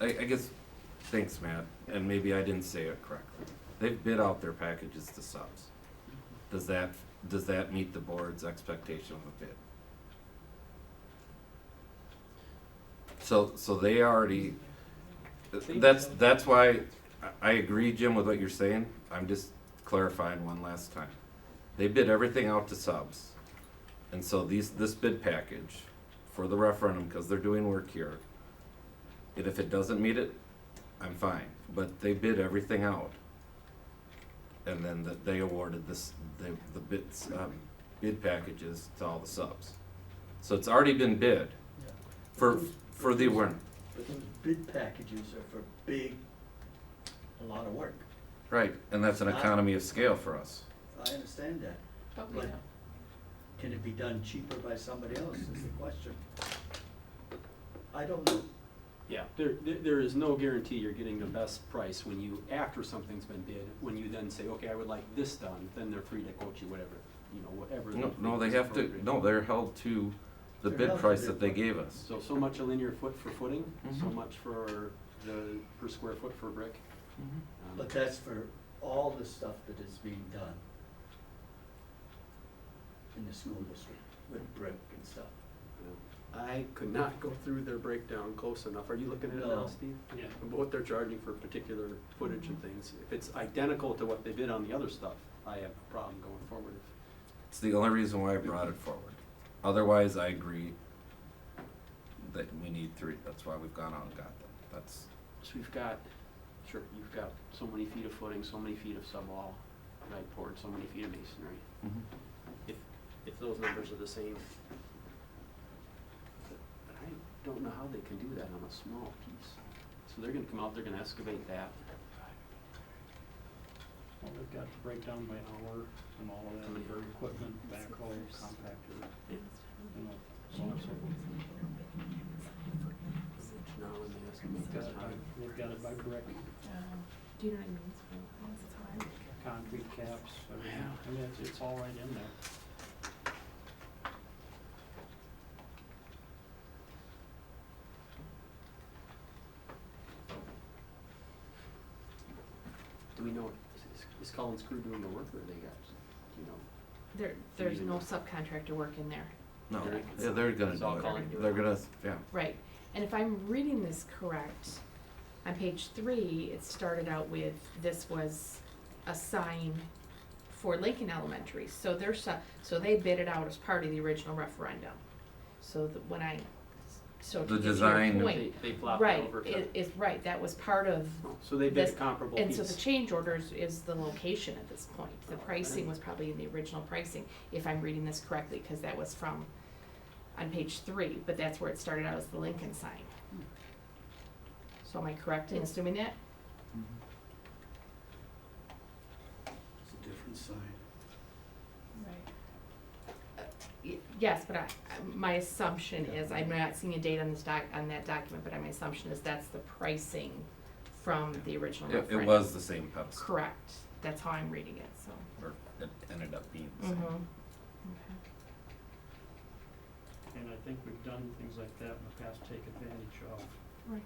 I, I guess, thanks, Matt, and maybe I didn't say it correctly. They've bid out their packages to subs. Does that, does that meet the board's expectation of a bid? So, so they already, that's, that's why, I, I agree, Jim, with what you're saying, I'm just clarifying one last time. They bid everything out to subs, and so these, this bid package for the referendum, cause they're doing work here, and if it doesn't meet it, I'm fine. But they bid everything out. And then the, they awarded this, the, the bids, um, bid packages to all the subs. So it's already been bid for, for the award, But those bid packages are for big, a lot of work. right, and that's an economy of scale for us. I understand that. But we But don't. can it be done cheaper by somebody else is the question. I don't know. Yeah, there, there there is no guarantee you're getting the best price when you, after something's been bid, when you then say, okay, I would like this done, then they're free to quote you whatever, you know, whatever. No, think no, they is have to, appropriate. no, they're held to the They're bid held to price their that they price. gave us. So, so much a linear foot for footing, so Mhm. much for the, per square foot for brick. Mm-hmm. Mhm. Um, But that's for all the stuff that is being done in the school district with brick and stuff. I could not go through their breakdown close enough. Are you looking at it No. now, Steve? Yeah. What they're charging for particular footage and things. If it's identical to what they bid on the other stuff, I have a problem going forward. It's the only reason why I brought it forward. Otherwise, I agree that we need three. That's why we've gone out and got them. That's, So we've got, sure, you've got so many feet of footing, so many feet of subwall, right poured, so many feet of masonry. Mm-hmm. If, if those numbers are the same. But I don't know how they can do that on a small piece. So they're gonna come out, they're gonna excavate that. Well, they've got to break down by hour and all of that, and their equipment, backhoe, compactor, you know, so on and so forth. Now when they excavate Got this it by, time. they've got it by brick, Um, Do you know what I mean? It's real close, it's hard. concrete caps, everything, I mean, it's, it's all right in there. Do we know, is- is- is Collins Crew doing the work or they got, you know? There, there's no subcontractor work in there, no, They're- yeah, they're gonna it's all do Colin. it. They're gonna, yeah. right? And if I'm reading this correct, on page three, it started out with, this was a sign for Lincoln Elementary. So their su- so they bid it out as part of the original referendum. So that when I, so The to get to your design- point, They, they flopped it right, over to. Oh, it is, right, that was part of So they bid a this- comparable And piece. so the change orders is the location at this point. The pricing was probably in the original pricing, if I'm reading this correctly, because that was from, on page three, but that's where it started out as the Lincoln sign. So am I correct in assuming that? It's a different sign. Uh, Y- Yes, but I, I- my assumption is, I'm not seeing a date on this doc, on that document, but my assumption is that's the pricing from the original It, referendum. it was the same Pepsi, Correct. That's how I'm reading it, so. or it ended up being the Mhm. same. Mm-hmm. Okay. And I think we've done things like that in the past, take advantage of. Right.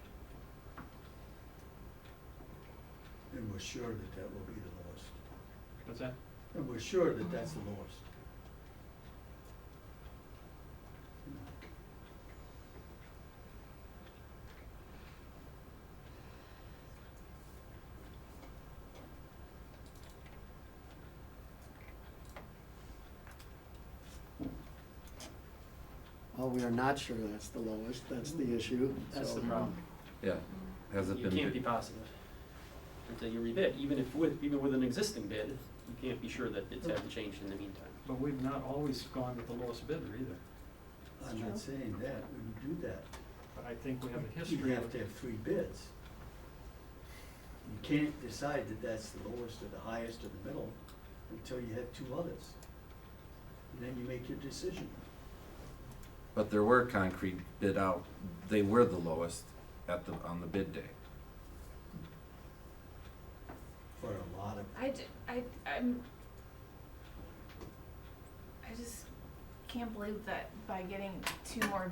And we're sure that that will be the lowest. What's that? And we're sure that that's the lowest. Well, we are not sure that's the lowest, that's the issue. That's the So, problem. Yeah, has it um, You can't be been, positive until you rebid, even if with, even with an existing bid, you can't be sure that it's hasn't changed in the meantime. But we've not always gone with the lowest bidder either, I'm not saying that, we would do that. but I think we have a You history have of to have three bids. You can't decide that that's the lowest or the highest or the middle until you have two others. And then you make your decision. but there were concrete bid out, they were the lowest at the, on the bid day. For a lot of, I, d- I, I'm, I just can't believe that by getting two more